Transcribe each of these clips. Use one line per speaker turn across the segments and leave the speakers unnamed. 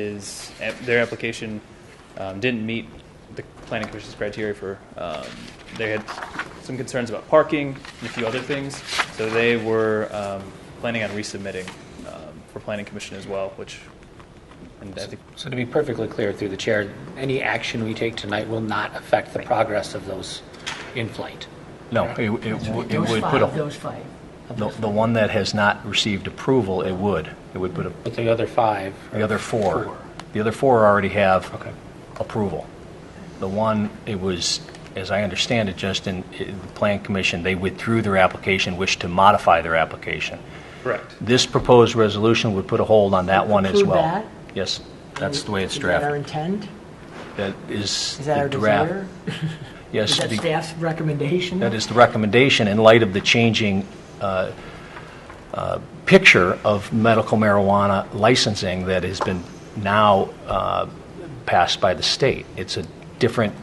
his, ap- their application um, didn't meet the planning commission's criteria for, um, they had some concerns about parking and a few other things, so they were um, planning on resubmitting um, for planning commission as well, which, and I think,
So to be perfectly clear through the chair, any action we take tonight will not affect the progress of those in flight.
No, it it
That's
w-
right.
it
Those
would put
five,
a,
those five. of
the
those
the one that has not received approval, it would. It would put a,
But the other five,
the other four.
Four.
The other four already have
Okay.
approval. The one, it was, as I understand it, Justin, it- the Plan Commission, they withdrew their application, wished to modify their application.
correct.
This proposed resolution would put a hold on that one as
Approve
well.
that?
Yes, that's the way it's
Is that our
drafted.
intent?
That is
Is that
the
our
draft.
desire?
Yes.
Is that
the-
staff's recommendation?
That is the recommendation in light of the changing uh, uh, picture of medical marijuana licensing that has been now uh, passed by the state. It's a different,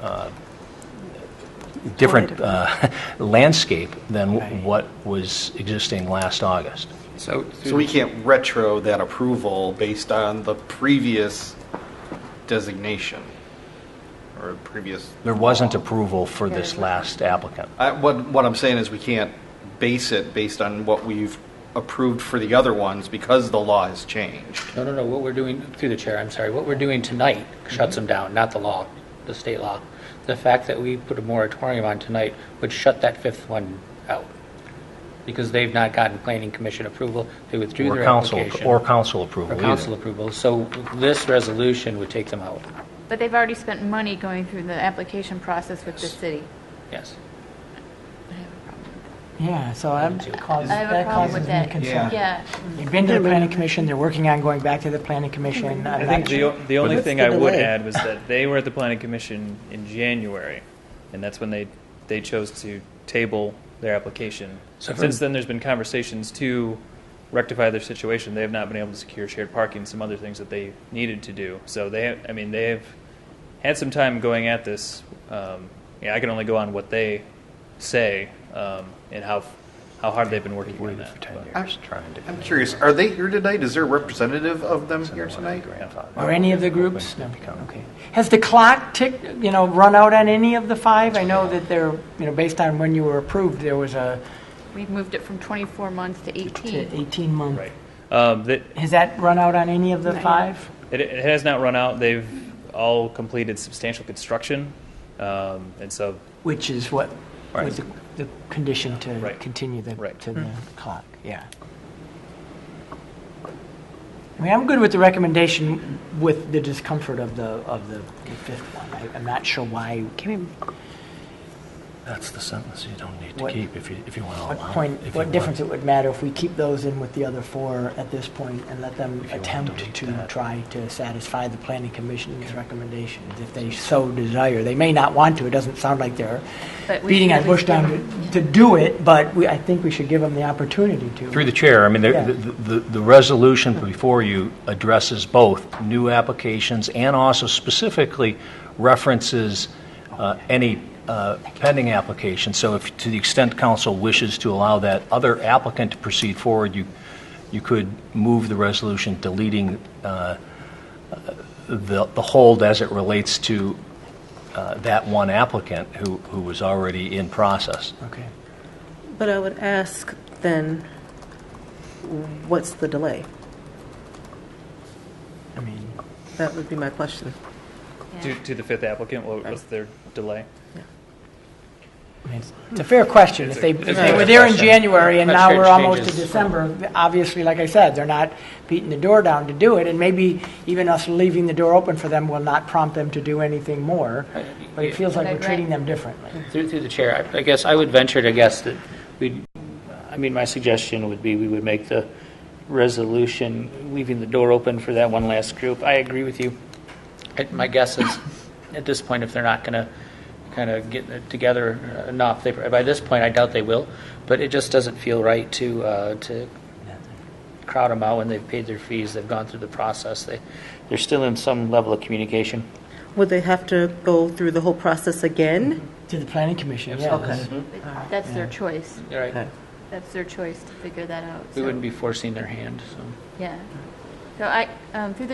uh, different uh, landscape than what was existing last August.
So, so we can't retro that approval based on the previous designation or previous,
There wasn't approval for this last applicant.
I, what, what I'm saying is we can't base it based on what we've approved for the other ones because the law has changed.
no, no, no, what we're doing, through the chair, I'm sorry, what we're doing tonight shuts them down, not the law, the state law. The fact that we put a moratorium on tonight would shut that fifth one out, because they've not gotten planning commission approval, they withdrew
Or
their
council,
application.
or council approval
Or
either.
council approval, so this resolution would take them out,
But they've already spent money going through the application process with the city.
yes.
Yeah, so I'm, that causes
I have a
that
problem
causes
with
me
that.
concern.
Yeah,
They've been to the planning commission, they're working on going back to the planning commission.
I
I'm
think
not
the,
sure.
o- the only
What's
thing
the
I would
delay?
add was that they were at the planning commission in January, and that's when they, they chose to table their application.
So for-
Since then, there's been conversations to rectify their situation. They have not been able to secure shared parking, some other things that they needed to do. So they, I mean, they have had some time going at this. Um, yeah, I can only go on what they say um, and how how hard they've been working on
Waited for
that.
10
but-
years trying to.
I'm curious, are they here tonight? Is there a representative of them here tonight?
Or any of the groups? No, okay. Has the clock ticked, you know, run out on any of the five? I know that they're, you know, based on when you were approved, there was a
we've moved it from 24 months to 18.
18-month.
Right. Um, that,
Has that run out on any of the five?
It, it has not run out. They've all completed substantial construction, um, and so
Which is what,
Right.
was the, the condition to
Right.
continue the,
Right.
to the clock, yeah. I mean, I'm good with the recommendation with the discomfort of the, of the the fifth one. I- I'm not sure why,
That's the sentence you don't need to
What-
keep if you, if you want to
what
allow. it,
point,
if you
what
want.
difference it would matter if we keep those in with the other four at this point and let them
If you want to
attempt
delete
to
that.
try to satisfy the planning commission's recommendations if they so desire. They may not want to, it doesn't sound like they're
But we
beating
should
on
at
bush
least
down
give
to, to do it, but we, I think we should give them the opportunity to.
Through the chair, I mean,
Yeah.
the, the- the, the resolution before you addresses both new applications and also specifically references uh, any uh, pending application. So if, to the extent council wishes to allow that other applicant to proceed forward, you, you could move the resolution deleting uh, the, the hold as it relates to uh, that one applicant who, who was already in process.
Okay.
But I would ask then, what's the delay?
I mean,
That would be my question.
to, to the fifth applicant, what was their delay?
I mean, it's- it's a fair question. If they, if they were there in
question.
January and
That
now
sure
we're almost to
changes.
December, obviously, like I said, they're not beating the door down to do it. And maybe even us leaving the door open for them will not prompt them to do anything more. But it feels like we're
Right.
treating them differently.
Through, through the chair, I I guess I would venture to guess that we, I mean, my suggestion would be we would make the resolution, leaving the door open for that one last group. I agree with you. I- My guess is, at this point, if they're not going to kind of get it together enough, they, by this point, I doubt they will, but it just doesn't feel right to, uh, to crowd them out when they've paid their fees, they've gone through the process, they, they're still in some level of communication.
Would they have to go through the whole process again?
To the planning commission, yes.
Mm-hmm.
Okay.
But That's their choice.
All right,
That's their choice to figure that out.
we
so-
wouldn't be forcing their hand, so.
Yeah. So I, um, through the